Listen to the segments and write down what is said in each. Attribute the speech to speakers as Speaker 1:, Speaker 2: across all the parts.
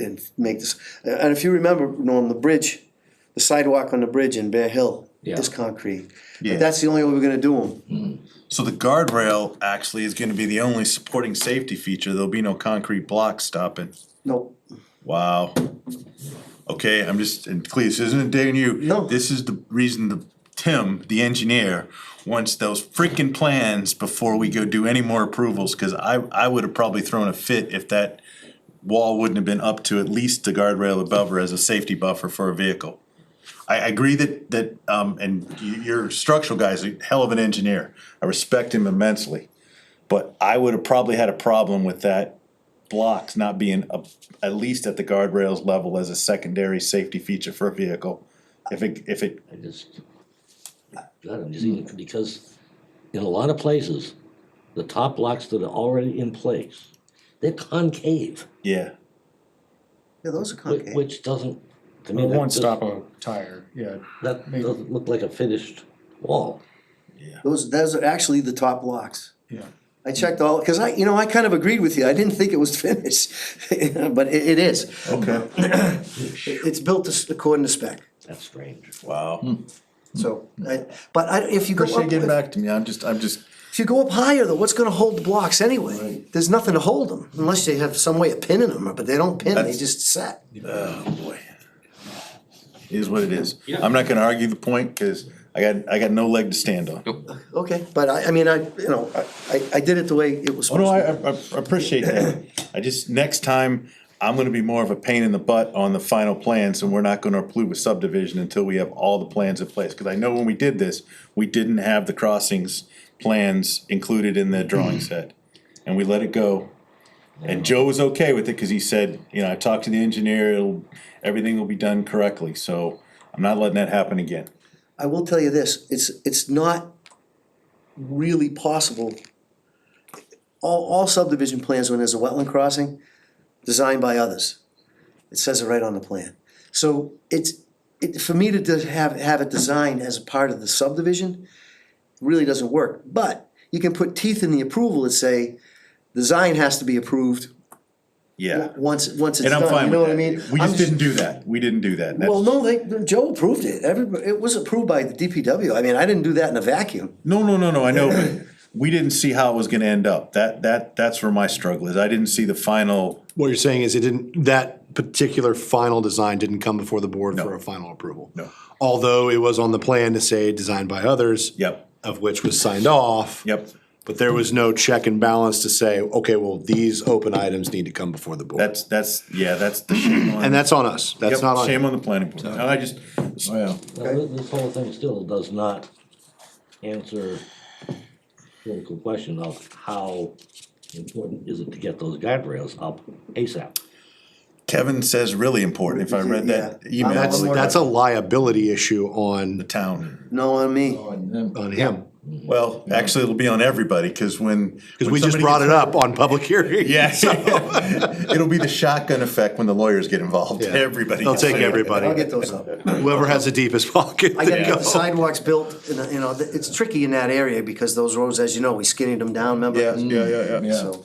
Speaker 1: and make this, and if you remember, Norm, the bridge, the sidewalk on the bridge in Bear Hill is
Speaker 2: Yeah.
Speaker 1: concrete.
Speaker 3: Yeah.
Speaker 1: That's the only way we're gonna do them.
Speaker 3: So the guardrail actually is gonna be the only supporting safety feature, there'll be no concrete blocks stopping.
Speaker 1: Nope.
Speaker 3: Wow. Okay, I'm just, and Cleese, isn't it digging you?
Speaker 1: No.
Speaker 3: This is the reason the, Tim, the engineer, wants those freaking plans before we go do any more approvals, cause I, I would have probably thrown a fit if that wall wouldn't have been up to at least the guardrail above her as a safety buffer for a vehicle. I, I agree that, that, um, and y- your structural guy's a hell of an engineer, I respect him immensely. But I would have probably had a problem with that blocks not being up, at least at the guardrails level as a secondary safety feature for a vehicle. If it, if it,
Speaker 2: I just, God, I'm just even, because in a lot of places, the top blocks that are already in place, they're concave,
Speaker 3: yeah,
Speaker 1: Yeah, those are
Speaker 2: whi-
Speaker 1: concrete.
Speaker 2: which doesn't, to me,
Speaker 4: It
Speaker 2: that
Speaker 4: won't stop
Speaker 2: just,
Speaker 4: a tire, yeah.
Speaker 2: that doesn't look like a finished wall.
Speaker 1: Those, those are actually the top blocks.
Speaker 4: Yeah.
Speaker 1: I checked all, cause I, you know, I kind of agreed with you, I didn't think it was finished, but it, it is.
Speaker 3: Okay.
Speaker 1: It's built to s- according to spec,
Speaker 2: That's strange.
Speaker 3: wow.
Speaker 1: so, I, but I, if you go
Speaker 3: Appreciate
Speaker 1: up,
Speaker 3: you getting
Speaker 1: if
Speaker 3: back to me, I'm just, I'm just,
Speaker 1: you go up higher though, what's gonna hold the blocks anyway? There's nothing to hold them, unless they have some way of pinning them, but they don't pin, they
Speaker 3: That's-
Speaker 1: just set.
Speaker 3: oh boy. It Is what it is. I'm not gonna argue the point, cause I got, I got no leg to stand on.
Speaker 1: Okay, but I, I mean, I, you know, I- I, I did it the way it was
Speaker 3: Oh, no,
Speaker 1: supposed
Speaker 3: I,
Speaker 1: to.
Speaker 3: I I appreciate that. I just, next time, I'm gonna be more of a pain in the butt on the final plans, and we're not gonna approve a subdivision until we have all the plans in place. Cause I know when we did this, we didn't have the crossings plans included in the drawing set, and we let it go. And Joe was okay with it, cause he said, you know, I talked to the engineer, it'll, everything will be done correctly, so I'm not letting that happen again.
Speaker 1: I will tell you this, it's, it's not really possible. All, all subdivision plans, when there's a wetland crossing, designed by others. It says it right on the plan. So it's, it, for me to just have, have it designed as a part of the subdivision, really doesn't work. But you can put teeth in the approval that say, design has to be approved
Speaker 3: Yeah,
Speaker 1: once, once it's
Speaker 3: and
Speaker 1: done,
Speaker 3: I'm fine
Speaker 1: you know
Speaker 3: with
Speaker 1: what I
Speaker 3: that.
Speaker 1: mean?
Speaker 3: We
Speaker 1: I'm
Speaker 3: just didn't do that, we didn't do that.
Speaker 1: Well,
Speaker 3: That's-
Speaker 1: no, they, Joe approved it, everybody, it was approved by the DPW, I mean, I didn't do that in a vacuum.
Speaker 3: No, no, no, no, I know, but we didn't see how it was gonna end up. That, that, that's where my struggle is. I didn't see the final,
Speaker 5: What you're saying is it didn't, that particular final design didn't come before the board for a final approval?
Speaker 3: No.
Speaker 5: Although it was on the plan to say designed by others.
Speaker 3: Yep.
Speaker 5: Of which was signed off.
Speaker 3: yep,
Speaker 5: But there was no check and balance to say, okay, well, these open items need to come before the board.
Speaker 3: that's, that's, yeah, that's the shame on.
Speaker 5: And that's on us. That's
Speaker 3: Yep,
Speaker 5: not on. Oh,
Speaker 3: Shame on the planning board. No, I just,
Speaker 2: Now, thi- this whole thing still does not answer critical question of how important is it to get those guardrails up ASAP?
Speaker 3: Kevin says really important. If I read that
Speaker 1: Yeah.
Speaker 3: email, I
Speaker 5: That's,
Speaker 3: was like,
Speaker 5: that's a liability issue
Speaker 3: the
Speaker 5: on,
Speaker 3: town.
Speaker 1: No, on me,
Speaker 5: on him.
Speaker 3: Well, actually, it'll be on everybody, cause when.
Speaker 5: Because we just brought it up on public hearing.
Speaker 3: Yeah. It'll be the shotgun effect when the lawyers get involved.
Speaker 5: Yeah.
Speaker 3: Everybody.
Speaker 5: They'll
Speaker 3: gets
Speaker 5: take
Speaker 3: it.
Speaker 5: everybody.
Speaker 1: I'll get those up.
Speaker 5: Whoever has the deepest pocket.
Speaker 1: I gotta
Speaker 5: they
Speaker 1: get the
Speaker 5: go.
Speaker 1: sidewalks built, and, uh, you know, th- it's tricky in that area, because those roads, as you know, we skinnied them down, remember?
Speaker 3: Yeah, yeah, yeah,
Speaker 5: Mm,
Speaker 3: yeah.
Speaker 1: So,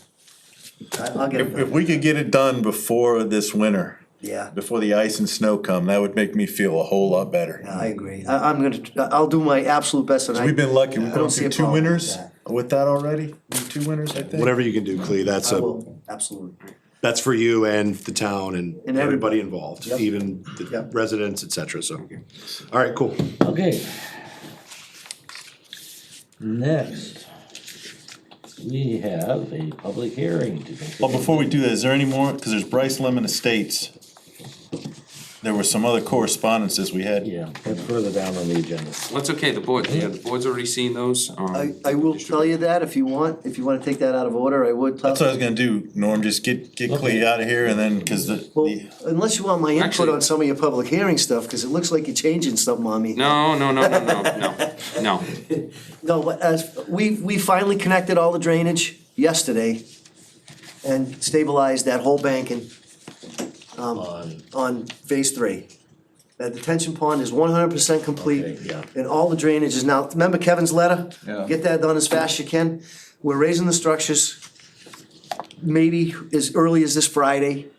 Speaker 1: I, I'll get it,
Speaker 3: If, if
Speaker 1: done.
Speaker 3: we could get it done before this winter,
Speaker 1: yeah,
Speaker 3: before the ice and snow come, that would make me feel a whole lot better.
Speaker 1: I agree, I, I'm gonna, tr- I'll do my absolute best, and I.
Speaker 3: We've been lucky,
Speaker 1: I
Speaker 3: we've
Speaker 1: don't
Speaker 3: gone
Speaker 1: see
Speaker 3: through
Speaker 1: a
Speaker 3: two
Speaker 1: problem with
Speaker 3: winners
Speaker 1: that.
Speaker 3: with that already, two winners, I think.
Speaker 5: Whatever you can do, Clee, that's
Speaker 1: I
Speaker 5: a.
Speaker 1: will, absolutely,
Speaker 5: That's for you and the town and
Speaker 1: And everybody.
Speaker 5: everybody involved, even the
Speaker 1: Yep.
Speaker 5: residents, et cetera, so. All right, cool.
Speaker 2: Okay. Next, we have a public hearing to consider.
Speaker 3: Well, before we do that, is there any more, cause there's Bryce Lemon Estates. There were some other correspondences we had.
Speaker 2: Yeah, that's further down on the agenda.
Speaker 6: Well, it's okay, the board, yeah, the board's already seen those, um.
Speaker 1: I, I will tell you that if you want, if you wanna take that out of order, I would.
Speaker 3: That's what I was gonna do, Norm, just get, get Clea out of here and then, cause the,
Speaker 1: Well,
Speaker 3: the-
Speaker 1: unless you want my input
Speaker 6: Actually-
Speaker 1: on some of your public hearing stuff, because it looks like you're changing something on me.
Speaker 6: No, no, no, no, no, no, no,
Speaker 1: No, but as, we, we finally connected all the drainage yesterday and stabilized that whole banking
Speaker 2: On,
Speaker 1: on phase three. That detention pond is one hundred percent
Speaker 2: Okay,
Speaker 1: complete.
Speaker 2: yeah.
Speaker 1: And all the drainage is now, remember Kevin's letter? Yeah. Get that done as fast as you can. We're raising the structures, maybe as early as this Friday.